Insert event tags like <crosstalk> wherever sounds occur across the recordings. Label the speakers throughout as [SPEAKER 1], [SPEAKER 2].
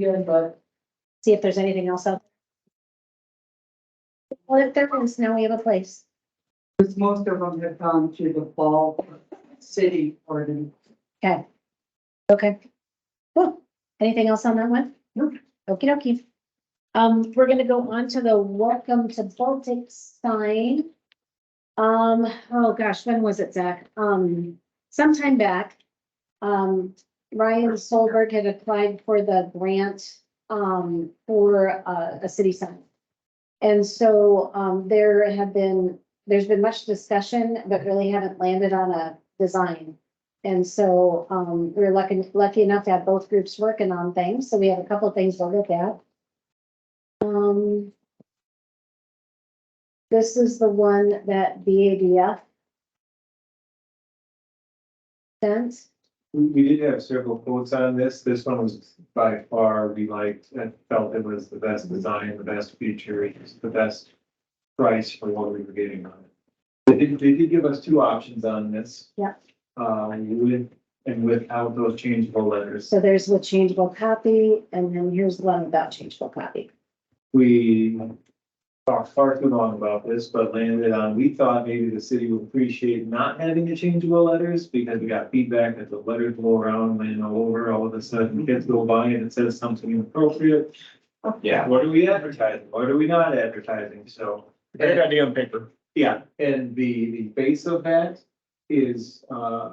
[SPEAKER 1] Yeah, but
[SPEAKER 2] see if there's anything else out. there. Well, if there is, now we have a place.
[SPEAKER 1] because most of them have gone to the fall city ordinance.
[SPEAKER 2] Okay. Okay. Cool. Anything else on that one?
[SPEAKER 1] Nope.
[SPEAKER 2] Okey dokey. Um, we're gonna go on to the welcome to Baltic sign. Um, oh gosh, when was it, Zach? Um, sometime back. Um, Ryan Solberg had applied for the grant, um, for a, a city sign. And so, um, there have been, there's been much discussion, but really haven't landed on a design. And so, um, we we're lucky, lucky enough to have both groups working on things, so we have a couple of things to look at. Um. This is the one that BADF. Sent,
[SPEAKER 3] We, we did have several quotes on this. This one was by far, we liked and felt it was the best design, the best feature, it was the best price for what we were getting on it. They did, they did give us two options on this.
[SPEAKER 2] Yeah.
[SPEAKER 3] Uh, with, and without those changeable letters.
[SPEAKER 2] so there's with changeable copy, and then here's the one without changeable copy.
[SPEAKER 3] We talked far too long about this, but landed on, we thought maybe the city would appreciate not having the changeable letters because we got feedback that the letters go around, land all over, all of a sudden kids go by and it says something inappropriate. Yeah, what are we advertising? What are we not advertising? So.
[SPEAKER 4] Great idea on paper.
[SPEAKER 3] Yeah, and the, the base of that is, uh,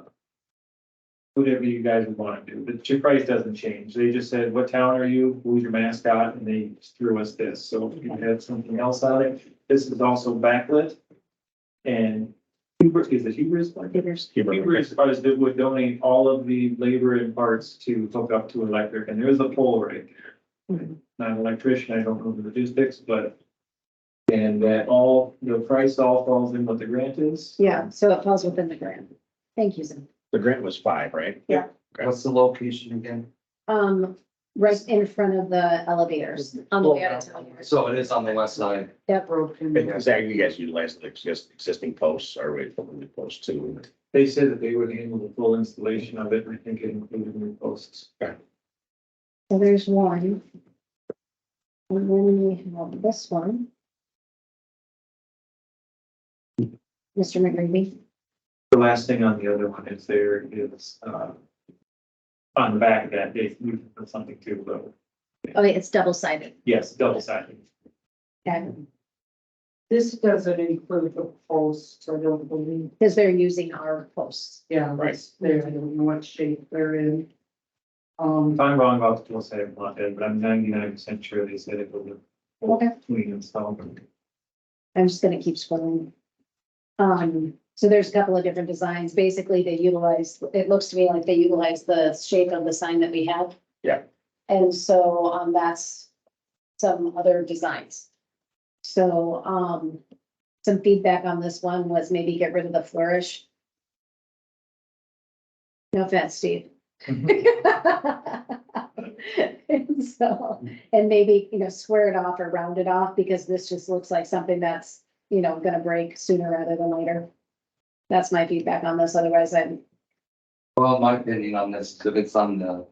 [SPEAKER 3] whatever you guys would want to do. The chip price doesn't change. They just said, what town are you? Who's your mascot? And they just threw us this. So if you had something else on it, this is also backlit. And Hubris, is it Hubris?
[SPEAKER 2] There's
[SPEAKER 3] Hubris was, that would donate all of the labor and parts to hook up to electric, and there is a pole right there.
[SPEAKER 1] Mhm.
[SPEAKER 3] Not an electrician, I don't know the logistics, but. And that all, the price all falls in what the grant is.
[SPEAKER 2] Yeah, so it falls within the grant. Thank you, Zim.
[SPEAKER 4] The grant was five, right?
[SPEAKER 5] What's the location again?
[SPEAKER 2] Um, right in front of the elevators on the way out of town.
[SPEAKER 5] So it is on the west side.
[SPEAKER 1] Broken.
[SPEAKER 4] And Zach, you guys utilize the exist- existing posts or we put the posts to?
[SPEAKER 3] They said that they would handle the full installation of it, and I think it included new posts.
[SPEAKER 2] So there's one. And then we have this one. Mr. McGreevy,
[SPEAKER 3] The last thing on the other one is there is, uh. On the back of that, they moved something too, though.
[SPEAKER 2] oh, wait, it's double sided.
[SPEAKER 3] Yes, double sided.
[SPEAKER 2] Because
[SPEAKER 1] This doesn't include the posts, I don't believe,
[SPEAKER 2] they're using our posts.
[SPEAKER 1] yeah,
[SPEAKER 4] Right.
[SPEAKER 1] it's there, I don't know what shape they're in. Um,
[SPEAKER 3] If I'm wrong about the dual sided plot, but I'm ninety-nine percent sure they said it was a
[SPEAKER 2] Okay.
[SPEAKER 3] between installed.
[SPEAKER 2] I'm just gonna keep scrolling. Um, so there's a couple of different designs. Basically, they utilize, it looks to me like they utilize the shape of the sign that we have.
[SPEAKER 4] Yeah.
[SPEAKER 2] And so, um, that's some other designs. So, um, some feedback on this one was maybe get rid of the flourish. No offense, Steve. <laughs> And So, and maybe, you know, square it off or round it off because this just looks like something that's, you know, gonna break sooner rather than later. That's my feedback on this. Otherwise, I'm,
[SPEAKER 5] Well, my opinion on this, if it's on the,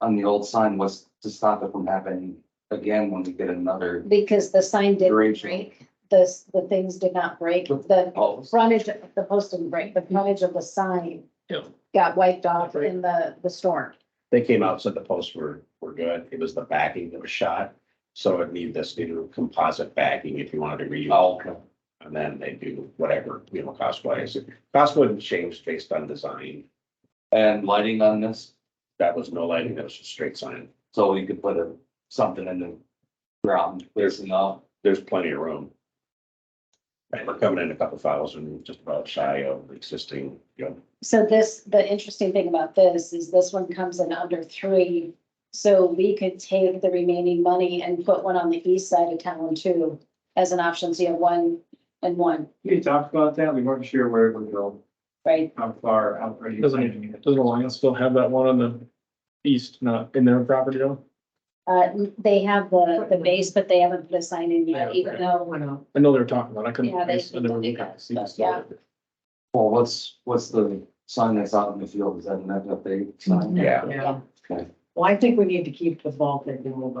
[SPEAKER 5] on the old sign was to stop it from happening again when we get another
[SPEAKER 2] because the sign didn't
[SPEAKER 5] Duration.
[SPEAKER 2] break, the, the things did not break, the
[SPEAKER 5] post.
[SPEAKER 2] frontage, the post didn't break, the frontage of the sign
[SPEAKER 4] Yeah.
[SPEAKER 2] got wiped off in the, the storm.
[SPEAKER 4] They came out, said the posts were, were good. It was the backing that was shot. So it needed this new composite backing if you wanted to reuse.
[SPEAKER 5] Okay.
[SPEAKER 4] And then they do whatever, you know, cost wise. Cost wouldn't change based on design.
[SPEAKER 5] And lighting on this,
[SPEAKER 4] That was no lighting, that was just straight sign.
[SPEAKER 5] so we could put a, something in the ground facing up.
[SPEAKER 4] There's plenty of room. And we're coming in a couple thousand, just about shy of the existing, you know,
[SPEAKER 2] So this, the interesting thing about this is this one comes in under three. So we could take the remaining money and put one on the east side of town too, as an option. So you have one and one,
[SPEAKER 3] We talked about that, we weren't sure where it would go,
[SPEAKER 2] right?
[SPEAKER 3] how far, how pretty.
[SPEAKER 6] Doesn't, doesn't Alliance still have that one on the east, not in their property though?
[SPEAKER 2] Uh, they have the, the base, but they haven't put a sign in yet, even though,
[SPEAKER 1] went up.
[SPEAKER 6] I know they were talking about, it. I couldn't.
[SPEAKER 2] Yeah, they-
[SPEAKER 6] I just- I never
[SPEAKER 2] they
[SPEAKER 6] looked at
[SPEAKER 2] got
[SPEAKER 6] it, see if it's
[SPEAKER 2] stuff, yeah.
[SPEAKER 6] still there.
[SPEAKER 5] Well, what's, what's the sign that's out in the field? Is that an FFA sign?
[SPEAKER 4] yeah.
[SPEAKER 1] Yeah. Well, I think we need to keep the Baltic a little bit